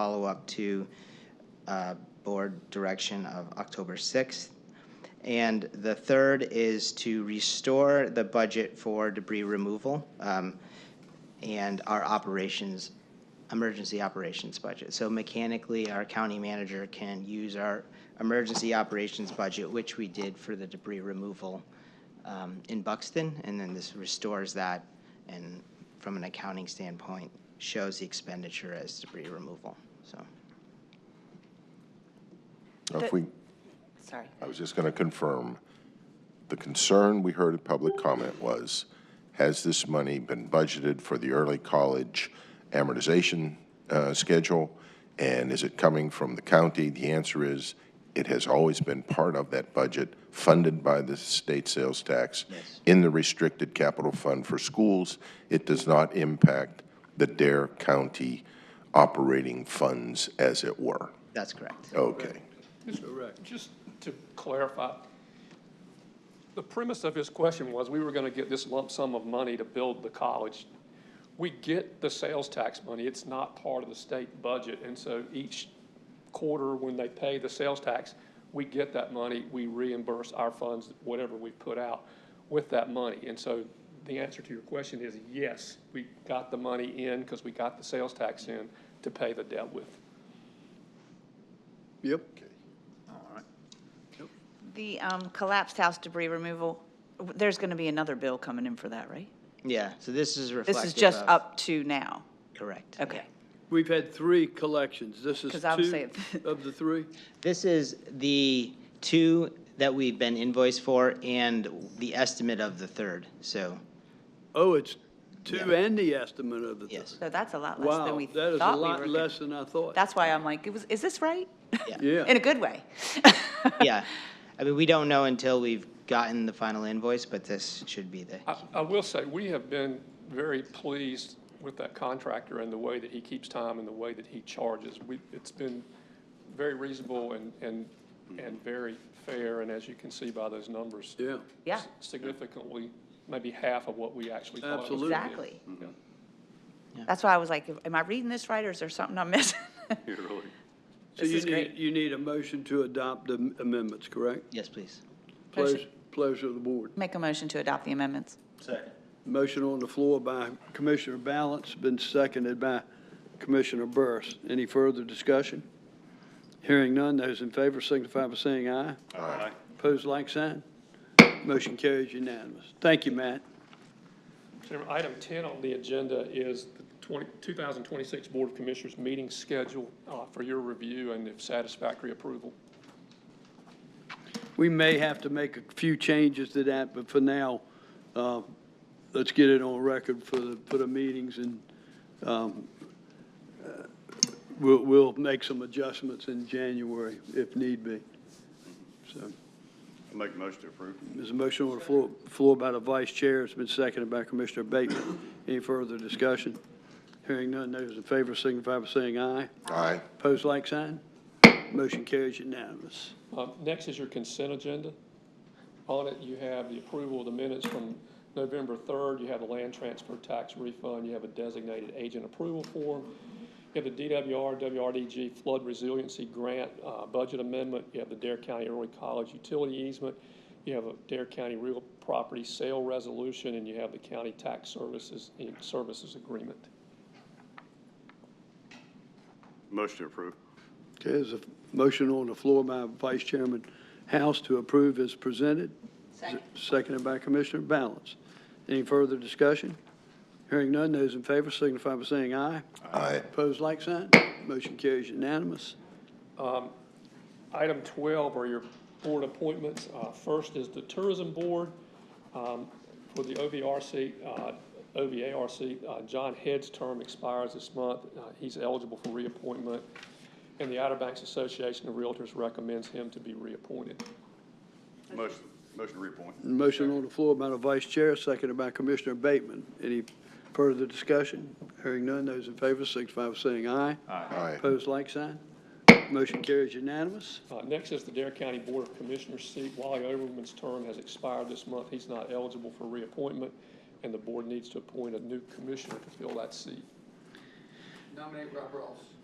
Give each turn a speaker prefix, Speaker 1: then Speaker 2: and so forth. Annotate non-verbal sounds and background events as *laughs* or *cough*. Speaker 1: follow-up to uh, board direction of October 6th. And the third is to restore the budget for debris removal um, and our operations, emergency operations budget. So mechanically, our county manager can use our emergency operations budget, which we did for the debris removal um, in Buxton, and then this restores that, and from an accounting standpoint, shows the expenditure as debris removal, so.
Speaker 2: Now, If
Speaker 3: The-
Speaker 2: we,
Speaker 3: Sorry.
Speaker 2: I was just going to confirm, the concern we heard in public comment was, has this money been budgeted for the early college amortization uh, schedule? And is it coming from the county? The answer is, it has always been part of that budget, funded by the state sales tax
Speaker 1: Yes.
Speaker 2: in the restricted capital fund for schools. It does not impact the Dare County operating funds, as it were.
Speaker 1: That's correct.
Speaker 2: Okay.
Speaker 4: Correct. Just to clarify, the premise of his question was, we were going to get this lump sum of money to build the college. We get the sales tax money, it's not part of the state budget, and so each quarter, when they pay the sales tax, we get that money, we reimburse our funds, whatever we put out with that money. And so the answer to your question is, yes, we got the money in because we got the sales tax in to pay the debt with.
Speaker 5: Yep.
Speaker 3: The um, collapsed house debris removal, w- there's going to be another bill coming in for that, right?
Speaker 1: Yeah, so this is reflective
Speaker 3: This is just
Speaker 1: of-
Speaker 3: up to now.
Speaker 1: Correct.
Speaker 3: Okay.
Speaker 5: We've had three collections. This is
Speaker 3: 'Cause I would *laughs* say-
Speaker 5: two of the three?
Speaker 1: This is the two that we've been invoiced for and the estimate of the third, so,
Speaker 5: Oh, it's two and the estimate of the.
Speaker 3: *laughs*
Speaker 5: third.
Speaker 1: yes,
Speaker 3: So that's a lot less than
Speaker 5: Wow,
Speaker 3: we
Speaker 5: that is a
Speaker 3: thought we were.
Speaker 5: lot
Speaker 3: gonna-
Speaker 5: less than I thought.
Speaker 3: That's why I'm like, it was, is this right?
Speaker 1: yeah.
Speaker 5: Yeah.
Speaker 3: *laughs* In a good way.
Speaker 1: Yeah, I mean, we don't know until we've gotten the final invoice, but this should be the,
Speaker 4: I, I will say, we have been very pleased with that contractor and the way that he keeps time and the way that he charges. We, it's been very reasonable and, and, and very fair, and as you can see by those numbers.
Speaker 5: Yeah.
Speaker 3: Yeah,
Speaker 4: Significantly, maybe half of what we actually thought. it was gonna
Speaker 3: *laughs*
Speaker 4: be.
Speaker 3: exactly.
Speaker 4: Yeah.
Speaker 3: That's why I was like, am I reading this right or is there something I'm missing? *laughs*
Speaker 5: So
Speaker 3: This
Speaker 5: you
Speaker 3: is
Speaker 5: need,
Speaker 3: great.
Speaker 5: you need a motion to adopt the amendments, correct?
Speaker 1: yes, please.
Speaker 3: Motion.
Speaker 5: Pleasure, pleasure of the board.
Speaker 3: Make a motion to adopt the amendments.
Speaker 5: Motion on the floor by Commissioner Balance, been seconded by Commissioner Burris. Any further discussion? Hearing none, those in favor signify by saying aye. Aye. Pose like sign. Motion carries unanimous. Thank you, Matt.
Speaker 4: Chairman, item 10 on the agenda is the 20 2026 Board of Commissioners meeting schedule uh, for your review and if satisfactory approval.
Speaker 5: We may have to make a few changes to that, but for now, uh, let's get it on record for the, for the meetings and um, uh, we'll, we'll make some adjustments in January if need be. So.
Speaker 6: Make a motion to approve.
Speaker 5: There's a motion on the floor, floor by the vice chair. It's been seconded by Commissioner Bateman. Any further discussion? Hearing none, those in favor signify by saying aye.
Speaker 2: Aye.
Speaker 5: Pose like sign. Motion carries unanimous.
Speaker 4: Uh, Next is your consent agenda. On it, you have the approval of the minutes from November 3rd. You have the land transfer tax refund. You have a designated agent approval form. You have the DWR, WRDG flood resiliency grant uh, budget amendment. You have the Dare County Early College utility easement. You have a Dare County real property sale resolution, and you have the county tax services, services agreement.
Speaker 6: Motion to approve.
Speaker 5: Okay, there's a motion on the floor by Vice Chairman House to approve as presented. Second. Seconded by Commissioner Balance. Any further discussion? Hearing none, those in favor signify by saying aye.
Speaker 2: Aye.
Speaker 5: Pose like sign. Motion carries unanimous.
Speaker 4: Item 12 are your board appointments. Uh, First is the Tourism Board um, for the OVRC, uh, OVARC. uh, John Head's term expires this month. Uh, He's eligible for reappointment, and the Outer Banks Association of Realtors recommends him to be reappointed.
Speaker 6: Motion, motion to reappoint.
Speaker 5: Motion on the floor by the vice chair, seconded by Commissioner Bateman. Any further discussion? Hearing none, those in favor signify by saying aye.
Speaker 2: Aye.
Speaker 5: Opposed, like sign. Motion carries unanimous.
Speaker 4: Uh, Next is the Dare County Board of Commissioners seat. Wally Overman's term has expired this month. He's not eligible for reappointment, and the board needs to appoint a new commissioner to fill that seat.
Speaker 7: Nominate Rob Ross.